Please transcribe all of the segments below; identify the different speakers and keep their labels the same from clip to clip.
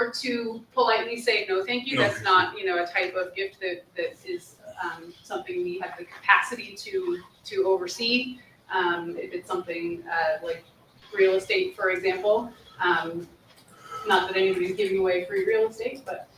Speaker 1: or to politely say, no, thank you,
Speaker 2: No,
Speaker 1: that's
Speaker 2: thank
Speaker 1: not, you know, a type of gift that, that is, um, something we have the capacity to, to oversee. Um, if it's something, uh, like real estate, for example, um, not that anybody's giving away free real estate, but,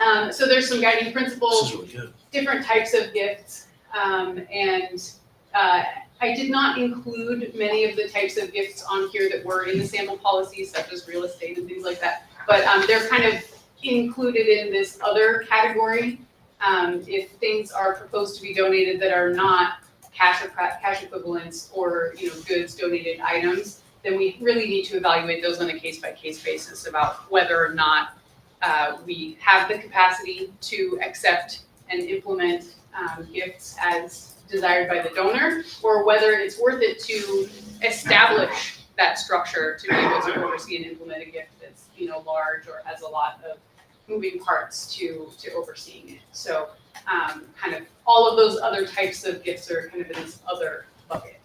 Speaker 1: um, so there's some guiding principles
Speaker 2: This is really good.
Speaker 1: different types of gifts. Um, and uh, I did not include many of the types of gifts on here that were in the sample policy, such as real estate and things like that. But um, they're kind of included in this other category. Um, if things are proposed to be donated that are not cash or cra- cash equivalents or you know goods donated items, then we really need to evaluate those on a case by case basis about whether or not uh, we have the capacity to accept and implement um, gifts as desired by the donor, or whether it's worth it to establish that structure to be able to oversee and implement a gift that's, you know, large or has a lot of moving parts to, to overseeing it. So, um, kind of, all of those other types of gifts are kind of in this other bucket.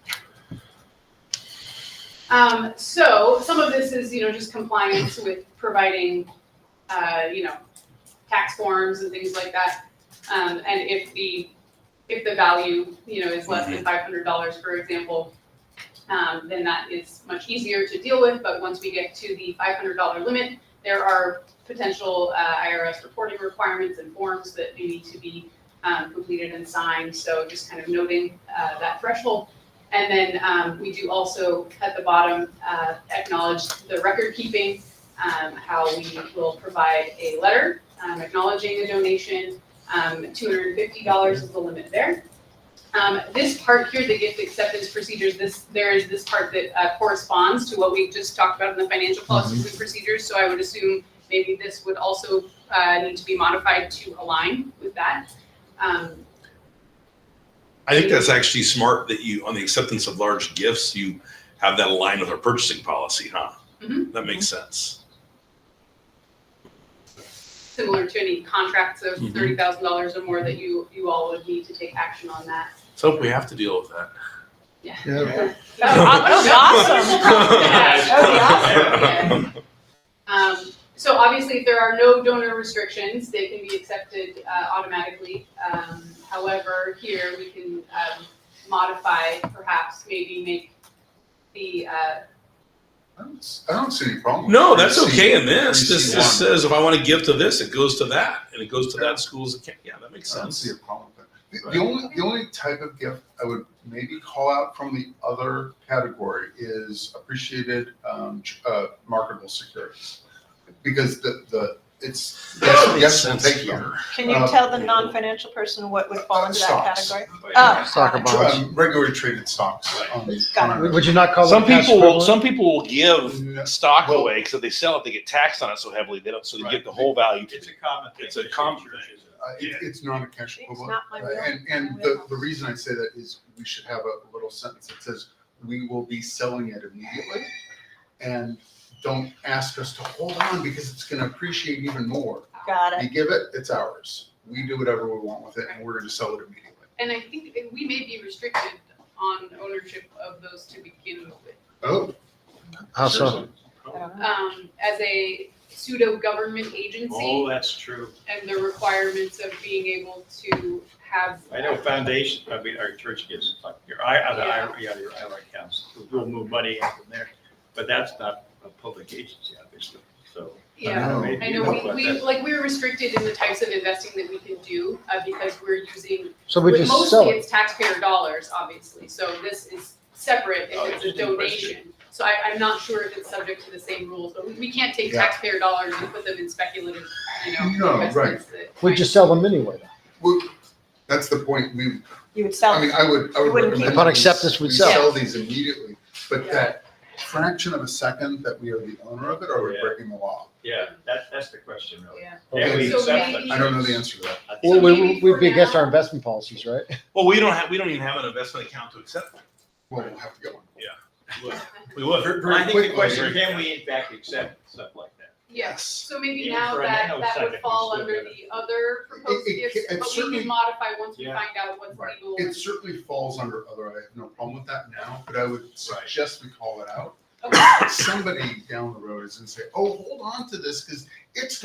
Speaker 1: Um, so, some of this is, you know, just compliance with providing, uh, you know, tax forms and things like that. Um, and if the, if the value, you know, is less than five hundred dollars, for example, um, then that is much easier to deal with, but once we get to the five hundred dollar limit, there are potential, uh, IRS reporting requirements and forms that do need to be, um, completed and signed, so just kind of noting, uh, that threshold. And then, um, we do also at the bottom, uh, acknowledge the record keeping, um, how we will provide a letter, um, acknowledging the donation, um, two hundred and fifty dollars is the limit there. Um, this part here, the gift acceptance procedures, this, there is this part that uh, corresponds to what we just talked about in the financial policies and procedures, so I would assume maybe this would also, uh, need to be modified to align with that. Um,
Speaker 2: I think that's actually smart that you, on the acceptance of large gifts, you have that aligned with our purchasing policy, huh?
Speaker 1: Mhm.
Speaker 2: That makes sense.
Speaker 1: similar to any contracts of
Speaker 2: Mhm.
Speaker 1: thirty thousand dollars or more that you, you all would need to take action on that.
Speaker 2: So we have to deal with that.
Speaker 3: Yeah.
Speaker 1: awesome. Um, so obviously, if there are no donor restrictions, they can be accepted uh, automatically. Um, however, here we can um, modify, perhaps maybe make the uh,
Speaker 3: I don't s- I don't see any problem. with
Speaker 2: No,
Speaker 3: it.
Speaker 2: that's
Speaker 3: I see-
Speaker 2: okay in this.
Speaker 3: I
Speaker 2: This
Speaker 3: see
Speaker 2: just
Speaker 3: one.
Speaker 2: says if I want to give to this, it goes to that, and it goes to that school's account. Yeah, that makes
Speaker 3: I don't see
Speaker 2: sense.
Speaker 3: a problem with that.
Speaker 2: uh,
Speaker 3: The-
Speaker 2: Right.
Speaker 3: The only, the only type of gift I would maybe call out from the other category is appreciated, um, tr- uh, marketable securities. Because the, the, it's, yes,
Speaker 2: That makes
Speaker 3: yes, we'll
Speaker 2: sense
Speaker 3: take you.
Speaker 2: here.
Speaker 4: Can you
Speaker 3: Uh,
Speaker 4: tell the non-financial person what would fall into that
Speaker 3: Stocks.
Speaker 2: Right.
Speaker 4: category? Oh.
Speaker 5: Soccer
Speaker 4: got it.
Speaker 5: bonds.
Speaker 3: Um, Regularly traded stocks on the. uh,
Speaker 4: Got it.
Speaker 3: on our-
Speaker 5: Would you not call
Speaker 2: Some
Speaker 5: it cash
Speaker 2: people will,
Speaker 5: equivalent?
Speaker 2: some people will give
Speaker 3: No,
Speaker 2: stock
Speaker 3: Well-
Speaker 2: away because if they sell it, they get taxed on it so heavily. They don't, so they
Speaker 3: Right.
Speaker 2: get the whole value.
Speaker 6: It's a common thing.
Speaker 2: It's a common thing.
Speaker 3: uh, it-
Speaker 2: Yeah.
Speaker 3: It's not a cash
Speaker 4: It's
Speaker 3: equivalent.
Speaker 4: not my
Speaker 3: Uh,
Speaker 4: real.
Speaker 3: And, and the, the reason I say that is we should have a little sentence that says, we will be selling it immediately. And don't ask us to hold on because it's gonna appreciate even more.
Speaker 4: Got
Speaker 3: You
Speaker 4: it.
Speaker 3: give it, it's ours. We do whatever we want with it and we're gonna sell it immediately.
Speaker 1: and I think that we may be restricted on ownership of those to begin with.
Speaker 3: Oh.
Speaker 5: How so?
Speaker 3: seriously?
Speaker 4: I don't know.
Speaker 1: Um, as a pseudo government agency,
Speaker 6: Oh, that's true.
Speaker 1: and the requirements of being able to have
Speaker 6: I know foundation, I mean, our church gives, like, your, I, I, I- yeah, your IRA accounts, we'll move money in from there. But that's not a public agency, obviously, so.
Speaker 1: yeah.
Speaker 3: know.
Speaker 6: mean,
Speaker 1: I
Speaker 6: you
Speaker 1: know, we,
Speaker 6: what
Speaker 1: we,
Speaker 6: that-
Speaker 1: like, we're restricted in the types of investing that we can do, uh, because we're using,
Speaker 5: So we
Speaker 1: with-
Speaker 5: just sell
Speaker 1: mostly
Speaker 5: it.
Speaker 1: it's taxpayer dollars, obviously, so this is separate
Speaker 6: Oh,
Speaker 1: if it's a
Speaker 6: interesting question.
Speaker 1: donation. So I, I'm not sure if it's subject to the same rules, but we, we can't take
Speaker 3: Yeah.
Speaker 1: taxpayer dollars and put them in speculative, you
Speaker 3: No,
Speaker 1: know,
Speaker 3: right.
Speaker 1: investments that.
Speaker 5: We just sell them anyway.
Speaker 3: Well, that's the point. We,
Speaker 4: You would
Speaker 3: I
Speaker 4: sell
Speaker 3: mean,
Speaker 4: it.
Speaker 3: I would, I would
Speaker 4: You wouldn't keep
Speaker 3: recommend.
Speaker 5: Upon
Speaker 3: these-
Speaker 5: acceptance, we'd
Speaker 3: we
Speaker 5: sell.
Speaker 3: Sell these immediately, but
Speaker 1: Yeah.
Speaker 3: that fraction of a second that we are the owner of it, are we
Speaker 6: Yeah.
Speaker 3: breaking the law?
Speaker 6: Yeah, that, that's the question, really.
Speaker 1: Yeah,
Speaker 6: Yeah, we
Speaker 1: So
Speaker 6: accept
Speaker 1: maybe-
Speaker 6: it.
Speaker 3: I don't know the answer to that.
Speaker 6: I think
Speaker 5: Well,
Speaker 6: so.
Speaker 5: we,
Speaker 1: maybe
Speaker 5: we'd
Speaker 1: for
Speaker 5: be against
Speaker 1: now-
Speaker 5: our investment policies, right?
Speaker 2: Well, we don't have, we don't even have an investment account to accept.
Speaker 3: Well, we'll have to get one.
Speaker 2: We would.
Speaker 6: Very-
Speaker 3: very
Speaker 6: I think the
Speaker 3: quickly.
Speaker 6: question, can we in fact accept stuff like that?
Speaker 1: yeah, so maybe
Speaker 6: Even
Speaker 1: now
Speaker 6: for a
Speaker 1: that,
Speaker 6: nanosecond,
Speaker 1: that would
Speaker 6: we
Speaker 1: fall
Speaker 6: still
Speaker 1: under
Speaker 6: gotta-
Speaker 1: the other proposed
Speaker 3: it
Speaker 1: gifts,
Speaker 3: ca- it's
Speaker 1: but we
Speaker 3: certainly-
Speaker 1: can modify once we
Speaker 6: Yeah.
Speaker 1: find out what's
Speaker 6: Right.
Speaker 1: legal.
Speaker 3: It
Speaker 1: and-
Speaker 3: certainly falls under other, I have no problem with that now, but I would suggest we call it out
Speaker 1: Okay.
Speaker 3: somebody down the road is gonna say, oh, hold on to this, because it's